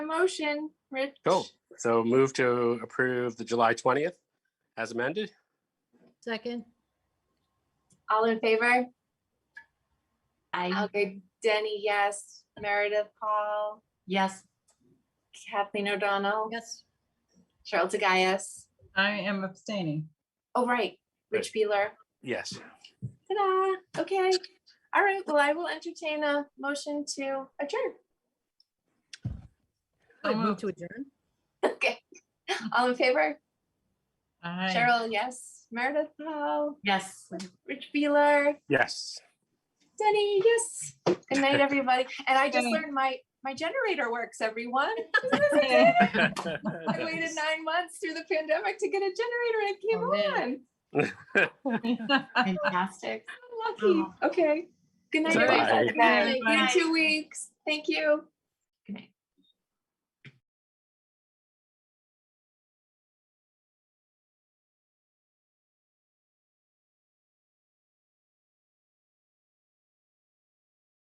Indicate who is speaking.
Speaker 1: motion, Rich.
Speaker 2: Cool. So move to approve the July 20th as amended.
Speaker 3: Second.
Speaker 1: All in favor?
Speaker 4: I,
Speaker 1: Alger, Denny, yes. Meredith, Paul,
Speaker 4: yes,
Speaker 1: Kathleen O'Donnell,
Speaker 3: Yes.
Speaker 1: Cheryl Tagayas.
Speaker 5: I am abstaining.
Speaker 1: Oh, right, Rich Beeler.
Speaker 2: Yes.
Speaker 1: Ta-da. Okay. All right. Well, I will entertain a motion to adjourn.
Speaker 3: I
Speaker 5: So
Speaker 3: move
Speaker 5: moved.
Speaker 3: to adjourn.
Speaker 1: Okay. All in favor?
Speaker 5: Aye.
Speaker 1: Cheryl, yes. Meredith, Paul,
Speaker 4: yes.
Speaker 1: Rich Beeler,
Speaker 2: Yes.
Speaker 1: Denny, yes. Good night, everybody. And I just
Speaker 5: Good night.
Speaker 1: learned my, my generator works, everyone.
Speaker 5: Yay.
Speaker 1: I waited nine months through the pandemic to get a generator and it
Speaker 3: Oh,
Speaker 1: came on.
Speaker 4: Fantastic.
Speaker 1: I'm Lucky. Okay. Good night,
Speaker 5: Bye.
Speaker 1: everybody.
Speaker 4: Bye.
Speaker 1: See you in two weeks. Thank you.